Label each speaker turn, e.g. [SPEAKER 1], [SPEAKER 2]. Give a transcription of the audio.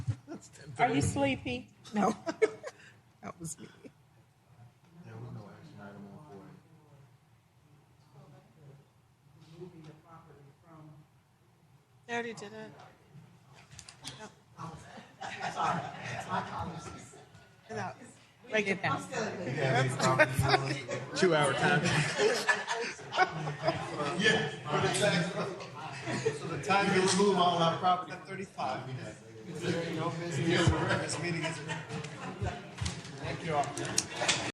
[SPEAKER 1] Are you sleepy? No. That was me.
[SPEAKER 2] There was no action item on for it.
[SPEAKER 3] I already did it. Without, like,
[SPEAKER 2] Did you have any property Two hour time. Yeah, for the tax. So the time you remove all our property. Thirty-five. Is there no business? This meeting is. Thank you all.